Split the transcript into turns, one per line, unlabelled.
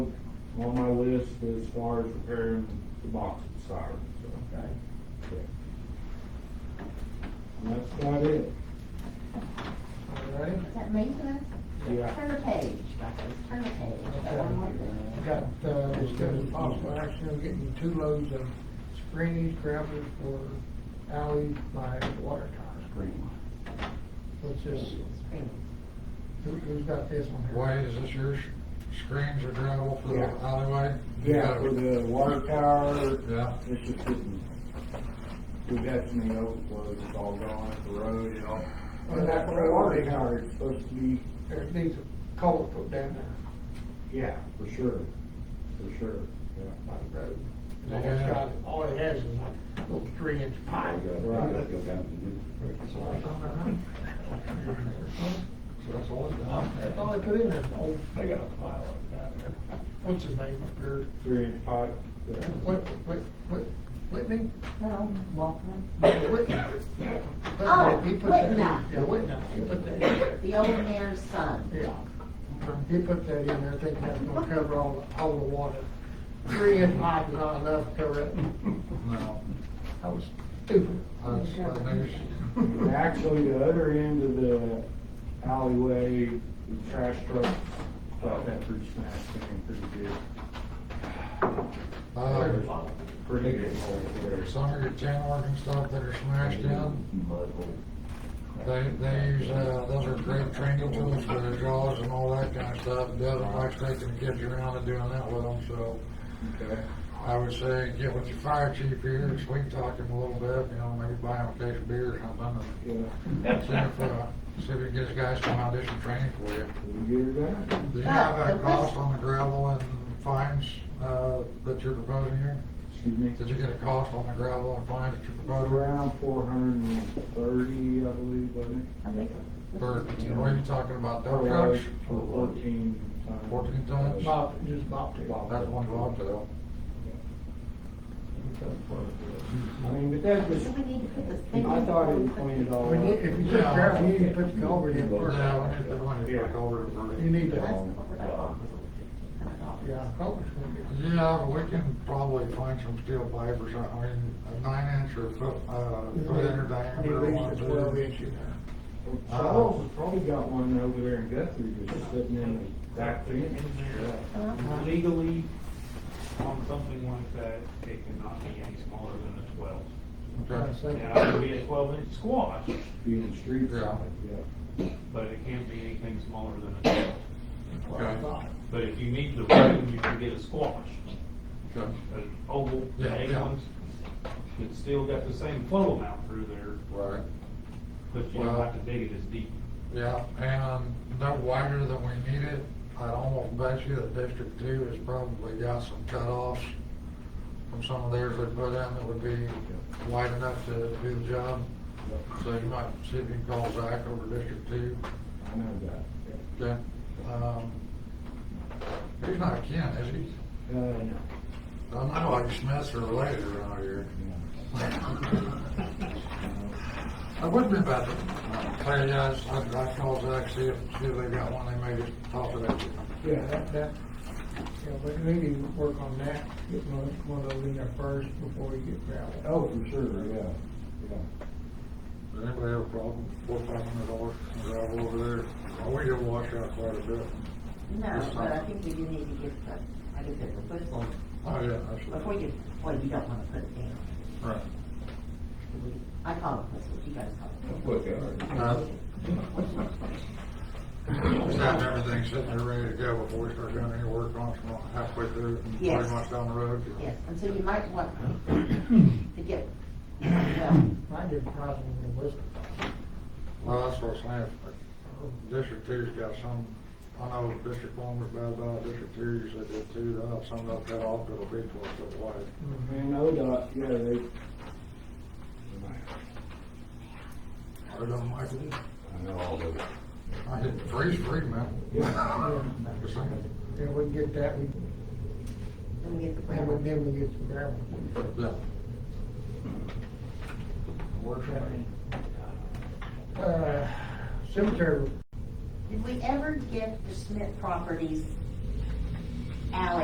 on my list as far as repairing the box of sirens, so.
Right.
And that's about it.
All right,
Is that me, Liz?
Yeah.
Turn the page, Marcus, turn the page. Got one more thing.
We got, uh, discussing possible action on getting two loads of screening gravel for alleys by water tower. Let's just,
Screen.
who, who's got this one here?
Why is this your screens or gravel for the
Yeah.
alleyway? You
Yeah,
gotta-
for the water tower,
Yeah,
it's just getting, we've had some of the overflows, it's all gone, the road and all.
Well,
And
that
that
water
water
tower
tower is supposed to be,
There needs a culvert put down there
yeah, for sure, for sure, yeah.
by the road.
They
All it's got, all it has is a little three inch pipe. So I don't know. So that's all it's got. That's all they put in there, old,
They got a pile of that.
what's his name, up there?
Three inch pipe, yeah.
Whit, Whit, Whit, Whitney?
Well, Walkman,
Yeah, Whitney.
Oh,
He put that-
Whitney.
Yeah, Whitney, he put that in there.
the old mayor's son.
Yeah. He put that in there thinking that's gonna cover all, all the water. Three inch pipe is not enough to cover it.
no,
I was stupid.
that's the news.
And Actually, the other end of the alleyway, the trash truck, got that pretty smashed in pretty good.
Uh,
Pretty good hole there.
some of your tin working stuff that are smashed in, they, they use, uh, those are great training tools for their jaws and all that kind of stuff. Doesn't like taking kids around and doing that with them, so
Okay.
I would say get with your fire chief here, sweet talk him a little bit, you know, maybe buy him a case of beer or something. and
Yeah,
See if, uh, see if we can get these guys some audition training for you.
we get her done.
Do you have a cost on the gravel and fines, uh, that you're proposing here?
Excuse me.
Did you get a cost on the gravel and fines that you're proposing?
Around four hundred and thirty, I believe, wasn't it?
I think-
For, what are you talking about, dump
Around
trucks?
Fourteen. tons.
14 tons?
Bob, just Bob too.
Bob.
That's one bobtail.
I mean, but that was,
So we need to put this thing.
I thought it was pointed all
We need, if you just grab, you need to put the culvert in first.
Yeah, we need to put one in back over to Vernon.
You need
That's
to,
what we're doing.
yeah, culvert's gonna be.
Yeah, but we can probably find some steel pipe or something, I mean, a nine inch or foot, uh, foot in or
At
diameter. one,
least a
two.
twelve inch in there.
Charles has probably got one over there in Guthrie that's sitting in the back fence.
Uh-huh.
Legally, on something like that, it cannot be any smaller than a twelve.
Okay.
Now, it could be a twelve inch squash,
Being the street
Yeah.
side, yeah.
but it can't be anything smaller than a twelve.
Okay.
But if you need the room, you can get a squash,
Okay.
an oval,
Yeah, yeah.
ones. It's still got the same flow amount through there,
Right.
but you don't have to dig it as deep.
Yeah, and no wider than we need it. I'd almost bet you that District Two has probably got some cutoffs from some of theirs they put in that would be wide enough to do the job. So you might see if you can call Zach over District Two.
I know that.
Okay. Um, He's not Ken, is he?
Uh, no.
I don't know, I just messed her later around here. I wouldn't have had to tell you guys, I, I called Zach, see if, see if they got one, they may just talk to that.
Yeah, that, that, yeah, but we need to work on that, get one, one of those in there first before we get gravel.
Oh, for sure, yeah, yeah.
Does anybody have a problem, four, five hundred dollars, gravel over there? Well, we did wash out quite a bit.
No, but I think we do need to get the, I guess it was,
Oh, yeah,
before
absolutely.
you, well, you don't wanna put it down.
Right.
I call it puzzle, you guys call it.
Uh, Just have everything sitting there ready to go before we start doing any work on it, Well, halfway through, and
Yes.
pretty much down the road.
Yes, and so you might want to get, well,
I did probably in the list.
Well, that's what I'm saying, If District Two's got some, I know District One was bad about it, District Two, you said that too, they'll have some that cut off, it'll be twelve foot wide.
And ODOT, yeah, they.
I don't like
I
it.
know all those.
I hit freeze free, man.
Yeah.
Just saying.
Yeah, we can get that, we,
then we get the
then we,
grammar.
then we get some gravel.
Yeah.
Uh, cemetery
Did we ever get the Smith Properties alley